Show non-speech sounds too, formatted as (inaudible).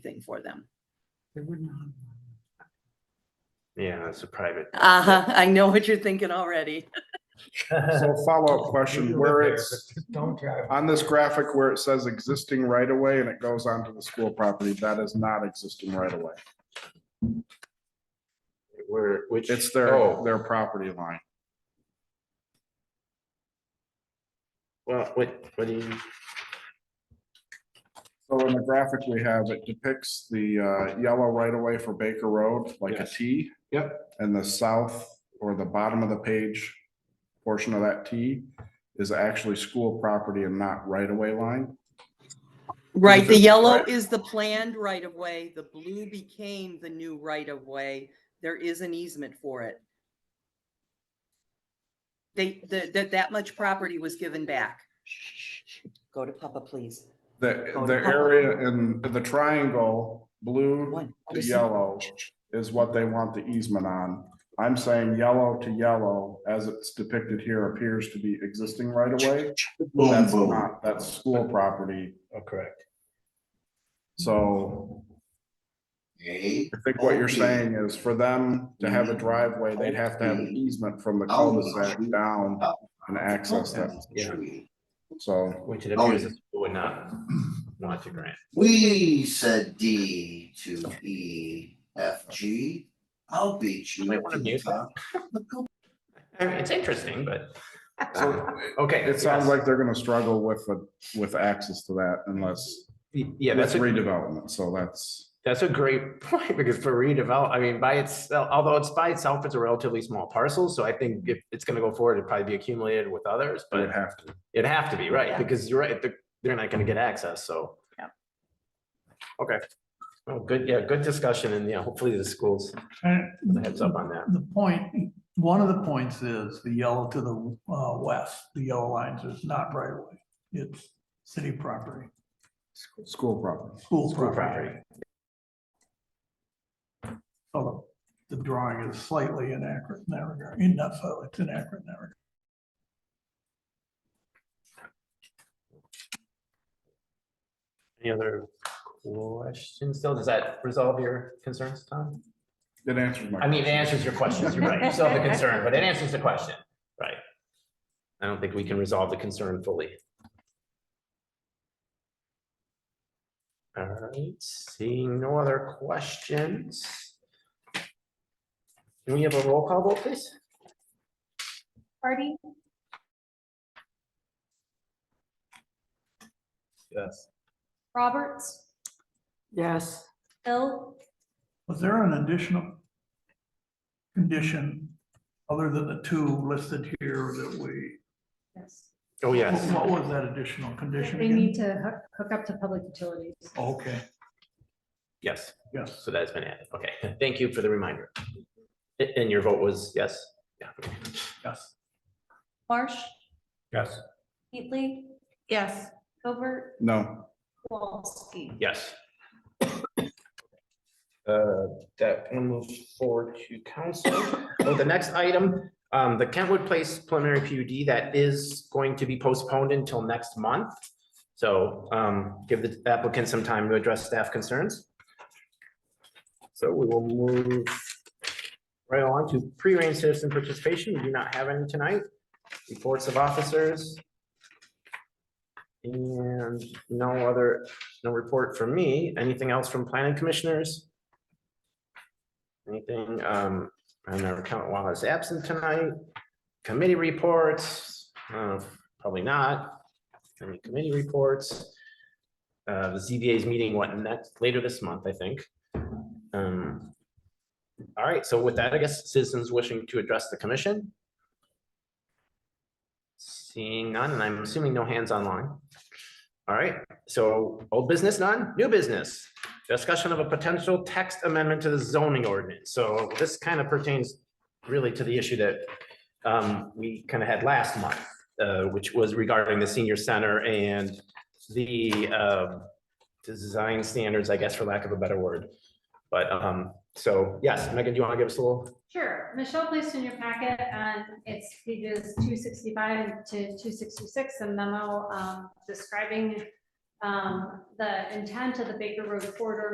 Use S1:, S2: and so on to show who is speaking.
S1: for them.
S2: They wouldn't.
S3: Yeah, it's a private.
S1: Uh huh, I know what you're thinking (laughs) already.
S4: (laughs)
S1: (laughs)
S4: So follow-up Oh, question, where it's,
S2: Don't drive.
S4: on this graphic where it says existing right of way and it goes onto the school property, that is not existing right of way.
S3: Where, which.
S4: It's their,
S3: oh,
S4: their property line.
S3: Well, what, what do you,
S4: So in the graphic we have, it depicts the uh, yellow right away for Baker Road, like a
S3: Yes.
S4: T. Yep. And the south or the bottom of the page portion of that T is actually school property and not right away line.
S1: Right, the
S4: Mhm.
S1: yellow
S4: Right.
S1: is the planned right of way, the blue became the new right of way. There is an easement for it. They, the- that, that much property was given back. Go to Papa, please.
S4: The,
S1: Oh,
S4: the
S1: no.
S4: area in the triangle, blue
S1: One.
S4: to yellow is what they want the easement on. I'm saying yellow to yellow, as it's depicted here, appears to be existing right away. That's not, that's school property.
S3: oh,
S5: Correct.
S4: So I think what you're saying is for them to have a driveway, they'd have to have an easement from the cul-de-sac down and access
S3: Oh,
S4: that.
S3: yeah,
S4: So
S3: which it
S1: Oh,
S3: appears the school would not want to grant.
S6: We said D to E, F, G. I'll beat you.
S3: Might wanna
S6: to the
S3: mute that.
S6: top.
S3: I mean, it's
S1: (laughs)
S3: interesting, but.
S4: So,
S3: Okay.
S4: it sounds
S3: yes.
S4: like they're gonna struggle with, the- with access to that unless,
S3: Yeah,
S4: with
S3: that's a,
S4: redevelopment, so that's.
S3: that's a great point because for redevelop, I mean, by itself, although it's by itself, it's a relatively small parcel. So I think if it's going to go forward, it'd probably be accumulated with others,
S4: They would
S3: but
S4: have to.
S3: it'd have to be,
S1: Yeah.
S3: right? Because you're right, they're, they're not going to get access, so.
S1: Yeah.
S3: Okay. Oh, good, yeah, good discussion and yeah, hopefully the schools heads up on that.
S5: The point, one of the points is the yellow to the uh, west, the yellow lines is not right away. It's city property,
S4: School property.
S5: school
S3: School
S5: property. Although the drawing is slightly inaccurate in that regard, in that, so it's inaccurate in that regard.
S3: Any other questions still? Does that resolve your concerns, Tom?
S4: It answers my.
S3: I mean, it answers your questions, you're right. You still have a concern, but it answers the question, right? I don't think we can resolve the concern fully. All right, seeing no other questions. Can we have a roll call vote, please?
S7: Hardy,
S3: Yes.
S7: Roberts,
S8: Yes,
S7: Hill,
S5: Was there an additional condition other than the two listed here that we?
S9: Yes,
S3: Oh, yes.
S5: What was that additional condition?
S9: they
S5: again? Oh,
S9: need to hook, hook up to public utilities.
S5: Okay,
S3: Yes,
S5: yes.
S3: so that's been added. Okay, thank you for the reminder. A- And your vote was yes? Yeah. okay.
S5: Yes.
S7: Marsh,
S3: Yes.
S7: Heatley,
S8: yes.
S7: Covert,
S4: No.
S7: Walski.
S3: Yes. Uh, That one moves forward to council. So the next item, um, the Kentwood Place preliminary PUD, that is going to be postponed until next month. So um, give the applicant some time to address staff concerns. So we will move right on to pre-arranged citizen participation. We do not have any tonight. Reports of officers. And no other no report from me. Anything else from planning commissioners? Anything, um, on our account while is absent tonight? Committee reports, uh, probably not. Any committee reports? Uh, the ZBA's meeting, what, next, later this month, I think. Um, all right, so with that, I guess citizens wishing to address the commission? Seeing none, and I'm assuming no hands online. All right, so old business, none, new business. Discussion of a potential text amendment to the zoning ordinance. So this kind of pertains really to the issue that um, we kind of had last month, uh, which was regarding the senior center and the um, design standards, I guess, for lack of a better word. But um, so, yes, Megan, do you want to give us a little?
S9: Sure, Michelle placed in your packet, and it's pages two sixty-five to two sixty-six, a memo um, describing um, the intent of the Baker Road corridor